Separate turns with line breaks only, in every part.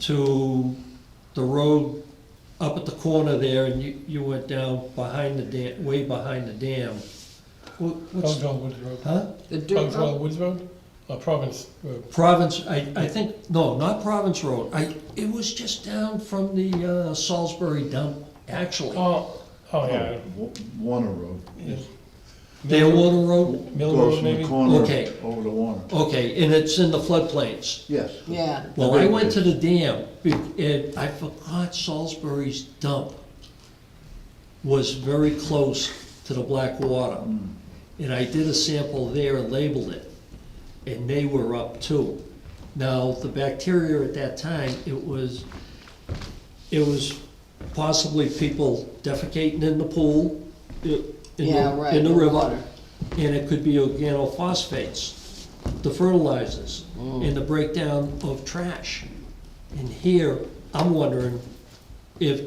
to the road up at the corner there, and you, you went down behind the dam, way behind the dam. Wha- What's,
Townsville Woods Road.
huh?
The Duke,
Townsville Woods Road, or Province Road.
Province, I, I think, no, not Province Road, I, it was just down from the uh, Salisbury dump, actually.
Oh, oh, yeah.
Wa- Warner Road.
There, Water Road,
Mill
Goes
Road,
from the
maybe?
corner
Okay.
over to Warner.
okay, and it's in the floodplains.
Yes.
yeah,
Well, I went to the dam, be- and I forgot Salisbury's dump was very close to the black water. And I did a sample there and labeled it, and they were up too. Now, the bacteria at that time, it was, it was possibly people defecating in the pool, i- in
Yeah,
the,
right,
in the
the
river.
water.
And it could be organophosphates, the fertilizers,
Mm.
and the breakdown of trash. And here, I'm wondering if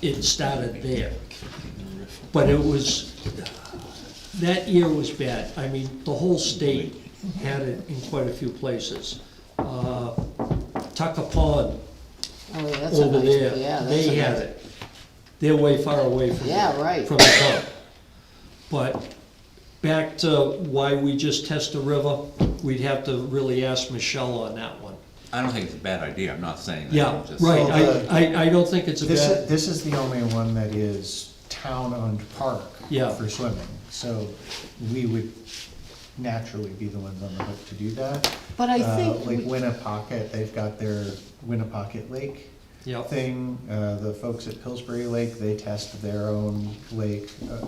it started there. But it was, that year was bad. I mean, the whole state had it in quite a few places. Uh, Tucker Pond
oh, yeah, that's a
over
nice, yeah,
there,
that's
they
a
had
nice.
it. They're way far away from
Yeah, right.
from the dump. But back to why we just test the river, we'd have to really ask Michelle on that one.
I don't think it's a bad idea, I'm not saying that.
Yeah,
I'm just-
right,
Well,
I, I, I don't think it's a
This is,
bad,
this is the only one that is town-owned park
Yeah.
for swimming. So we would naturally be the ones on the hook to do that.
But I
Uh,
think
Like
we-
Winnapocket, they've got their Winnapocket Lake
yeah,
thing. Uh, The folks at Pillsbury Lake, they test their own lake uh,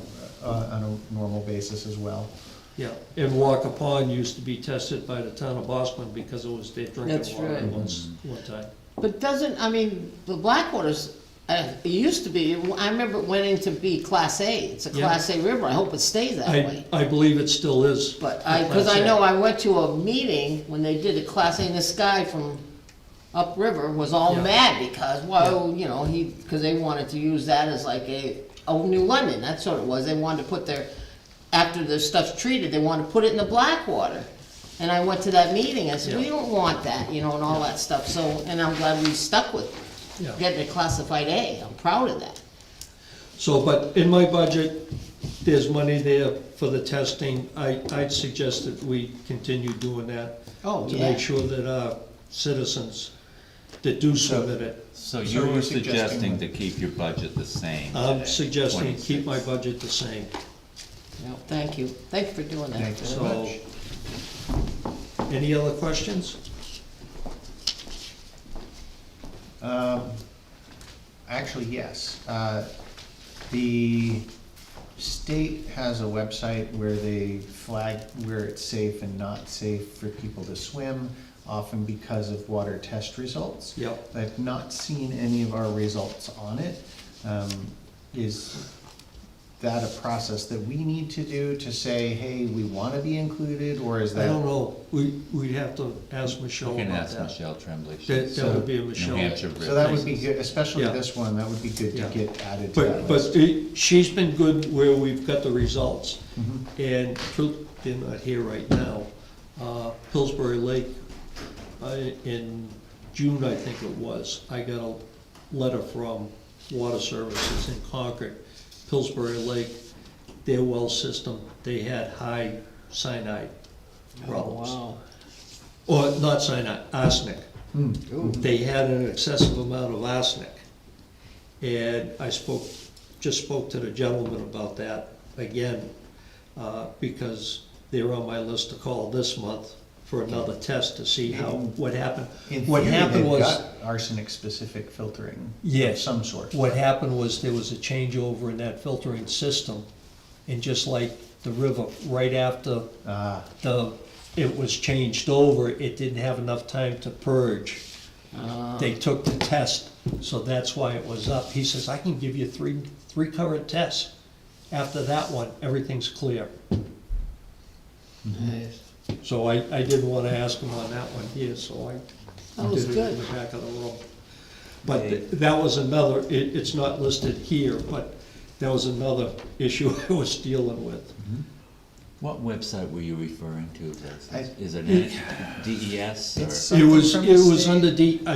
uh, on a normal basis as well.
yeah. And Walker Pond used to be tested by the town of Boston because it was their
That's
drinking water
right.
once, one time.
But doesn't, I mean, the Blackwater's, uh, it used to be, I remember it went into be Class A, it's a
Yeah.
Class A river, I hope it stays that
I,
way.
I believe it still is.
But
a
I, cause
Class
I
A.
know I went to a meeting when they did a Class A, and this guy from upriver was all
Yeah.
mad because, well, you know, he, cause they wanted to use that as like a, oh, New London, that's what it was, they wanted to put their, after their stuff's treated, they wanted to put it in the Blackwater. And I went to that meeting, I said, we
Yeah.
don't want that, you know, and all that stuff, so, and I'm glad we stuck with it
Yeah.
getting it classified A, I'm proud of that.
So, but in my budget, there's money there for the testing. I, I'd suggest that we continue doing that.
Oh,
To
yeah.
make sure that our citizens that do swim in it,
So
So
you
you're
were
suggesting
suggesting to keep your budget the same?
I'm suggesting keep my
26.
budget the same,
No, thank you, thank you for doing
Thank
that.
you so
so.
much.
Any other questions?
Um, Actually, yes. Uh, The state has a website where they flag where it's safe and not safe for people to swim, often because of water test results.
Yep.
I've not seen any of our results on it. Um, Is that a process that we need to do to say, hey, we want to be included, or is
I
that?
don't know, we, we'd have to ask
You
Michelle
can
about
ask
that.
Michelle Tremblay.
That,
she's
that would be a
New
Michelle.
Hampshire
So
River.
that would be good, especially
Yeah.
this one, that would be good to
Yeah.
get added to that
But,
list.
but it- she's been good where we've got the results.
Mm-hmm.
And Pil- they're not here right now. Uh, Pillsbury Lake, I- in June, I think it was, I got a letter from Water Services in Concord. Pillsbury Lake, their well system, they had high cyanide
Oh,
Oh,
problems. Or not cyanide, arsenic. They had an excessive amount of arsenic. And I spoke, just spoke to the gentleman about that again, uh, because they're on my list to call this month for another test to see how, what happened.
In
What
theory,
happened
they've
was,
got Arsenic-specific filtering of
Yes.
some sort.
what happened was there was a changeover in that filtering system. And just like the river, right after
Ah,
the, it was changed over, it didn't have enough time to purge.
Ah.
They took the test, so that's why it was up. He says, I can give you three, three current tests. After that one, everything's clear. Mm-hmm. So I, I didn't wanna ask him on that one here, so I
That was
did it in
good.
the back of the room. But th- that was another, it, it's not listed here, but that was another issue I was dealing with.
What website were you referring to, Liz?
I-
Is it E an DES or?
It's
It was,
Something
it
from the
was
state?
under D,